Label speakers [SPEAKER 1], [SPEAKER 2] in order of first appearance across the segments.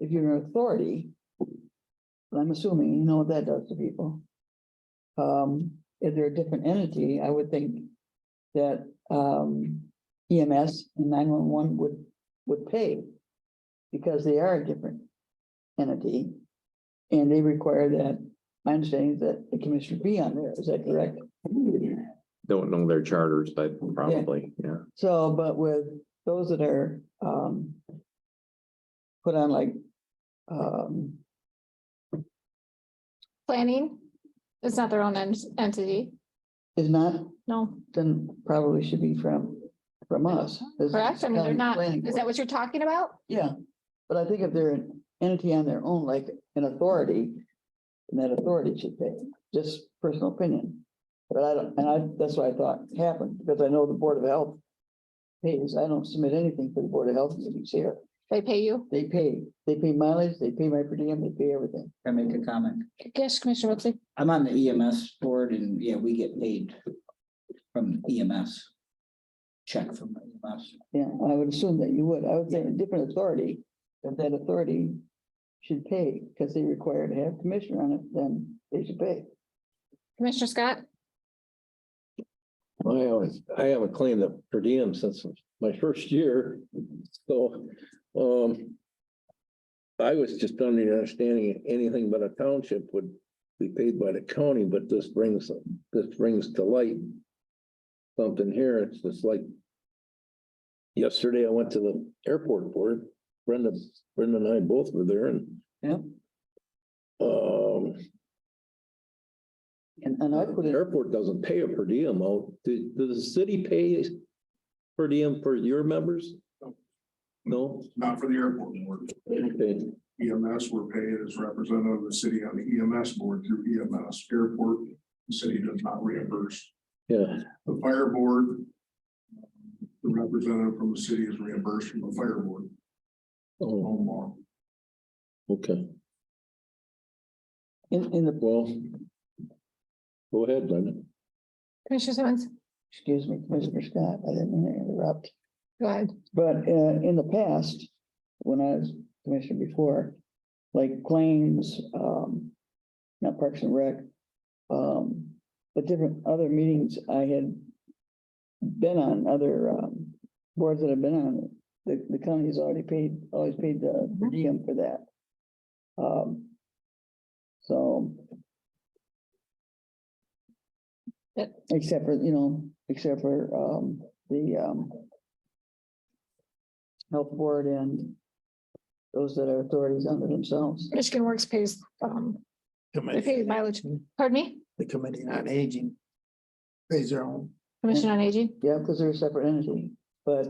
[SPEAKER 1] if you're an authority. I'm assuming you know what that does to people. Um, if they're a different entity, I would think that um EMS and nine one one would would pay. Because they are a different entity. And they require that, my understanding is that the commissioner be on there, is that correct?
[SPEAKER 2] Don't know their charters, but probably, yeah.
[SPEAKER 1] So, but with those that are, um. Put on like, um,
[SPEAKER 3] Planning, it's not their own en- entity,
[SPEAKER 1] is not,
[SPEAKER 3] no,
[SPEAKER 1] then probably should be from, from us. as
[SPEAKER 3] correct? I mean, they're
[SPEAKER 1] county
[SPEAKER 3] not,
[SPEAKER 1] planning
[SPEAKER 3] is that
[SPEAKER 1] board.
[SPEAKER 3] what you're talking about?
[SPEAKER 1] Yeah, but I think if they're an entity on their own, like an authority, then that authority should pay, just personal opinion. But I don't, and I, that's what I thought happened, because I know the Board of Health pays, I don't submit anything for the Board of Health meetings here.
[SPEAKER 3] They pay you?
[SPEAKER 1] They pay, they pay mileage, they pay my per diem, they pay everything.
[SPEAKER 4] Can I make a comment?
[SPEAKER 3] Yes, Commissioner Wiltie.
[SPEAKER 4] I'm on the EMS board and yeah, we get paid from EMS. Check from E EMS.
[SPEAKER 1] Yeah, I would assume that you would. I would say a different authority, that that authority should pay, because they require to have commissioner on it, then they should pay.
[SPEAKER 3] Commissioner Scott,
[SPEAKER 5] I always, I haven't claimed a per diem since my first year, so, um. I was just under the understanding anything but a township would be paid by the county, but this brings, this brings to light. Something here, it's just like. Yesterday, I went to the airport board, Brenda, Brenda and I both were there and.
[SPEAKER 1] Yeah.
[SPEAKER 5] Um.
[SPEAKER 1] And, and I put it,
[SPEAKER 5] Airport doesn't pay a per diem, oh, do- does the city pay per diem for your members? No?
[SPEAKER 6] not for the airport board.
[SPEAKER 5] Okay,
[SPEAKER 6] EMS, we're paid as representative of the city on the EMS board through EMS airport. The city does not reimburse.
[SPEAKER 5] yeah,
[SPEAKER 6] The fire board, the representative from the city is reimbursed from the fire board,
[SPEAKER 5] oh,
[SPEAKER 6] home law.
[SPEAKER 5] okay,
[SPEAKER 1] in, in the,
[SPEAKER 5] well. Go ahead, Brenda.
[SPEAKER 3] Commissioner Simmons,
[SPEAKER 1] excuse me, Commissioner Scott, I didn't mean to interrupt.
[SPEAKER 3] go ahead.
[SPEAKER 1] But uh, in the past, when I was commissioner before, like claims, um, not Parks and Rec, um, but different other meetings I had been on, other, um, boards that I've been on, the, the county's already paid, always paid the per diem for that. Um, so.
[SPEAKER 3] Yep.
[SPEAKER 1] Except for, you know, except for, um, the, um, health board and those that are authorities under themselves.
[SPEAKER 3] Michigan Works pays, um, they pay mileage. Pardon me,
[SPEAKER 7] the Committee on Aging. Pays their own.
[SPEAKER 3] Commission on Aging?
[SPEAKER 1] Yeah, because they're a separate entity, but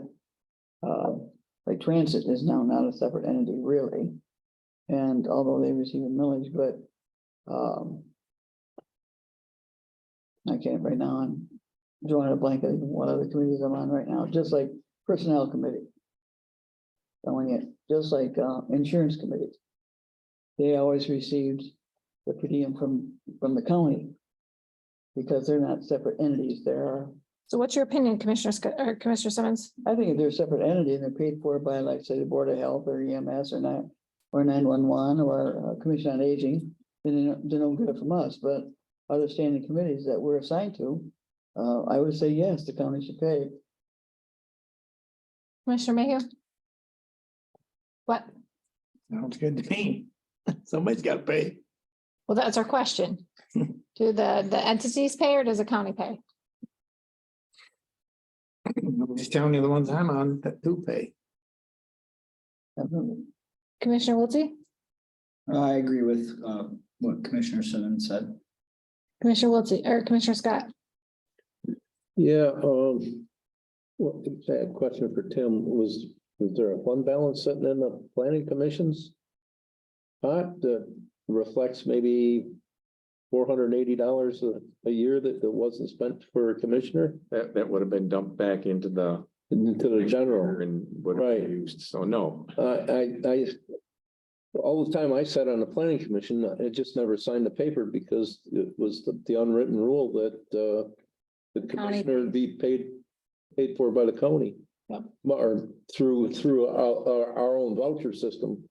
[SPEAKER 1] uh, like transit is now not a separate entity really. And although they receive a millage, but um I can't right now, I'm drawing a blank on one of the committees I'm on right now, just like personnel committee. Telling it, just like uh insurance committee. They always received the per diem from from the county. Because they're not separate entities, they are
[SPEAKER 3] So what's your opinion, Commissioner Scott, or Commissioner Simmons?
[SPEAKER 1] I think if they're a separate entity and they're paid for by, like, say, the Board of Health or EMS or nine, or nine one one or uh, Commission on Aging, then they don't, they don't get it from us, but other standing committees that we're assigned to, uh, I would say, yes, the county should pay.
[SPEAKER 3] Commissioner Mayhew? What?
[SPEAKER 7] Sounds good to me. Somebody's got to pay.
[SPEAKER 3] Well, that's our question. Do the, the entities pay or does the county pay?
[SPEAKER 7] I'm Just telling you the ones I'm on that do pay.
[SPEAKER 1] Definitely.
[SPEAKER 3] Commissioner Wiltie,
[SPEAKER 4] I agree with uh what Commissioner Simmons said.
[SPEAKER 3] Commissioner Wiltie, or Commissioner Scott?
[SPEAKER 5] Yeah, um. Well, I had a question for Tim, was, was there a fund balance sitting in the planning commissions? pot that reflects maybe four hundred and eighty dollars a, a year that, that wasn't spent for a commissioner
[SPEAKER 2] That, that would have been dumped back into the.
[SPEAKER 5] into the general.
[SPEAKER 2] And would have
[SPEAKER 5] Right.
[SPEAKER 2] been used, so no.
[SPEAKER 5] I, I, I, all the time I sat on the planning commission, I just never signed the paper because it was the, the unwritten rule that, uh, the
[SPEAKER 3] County
[SPEAKER 5] commissioner
[SPEAKER 3] pays.
[SPEAKER 5] be paid, paid for by the county.
[SPEAKER 3] Yep.
[SPEAKER 5] Or through, through our, our, our own voucher system.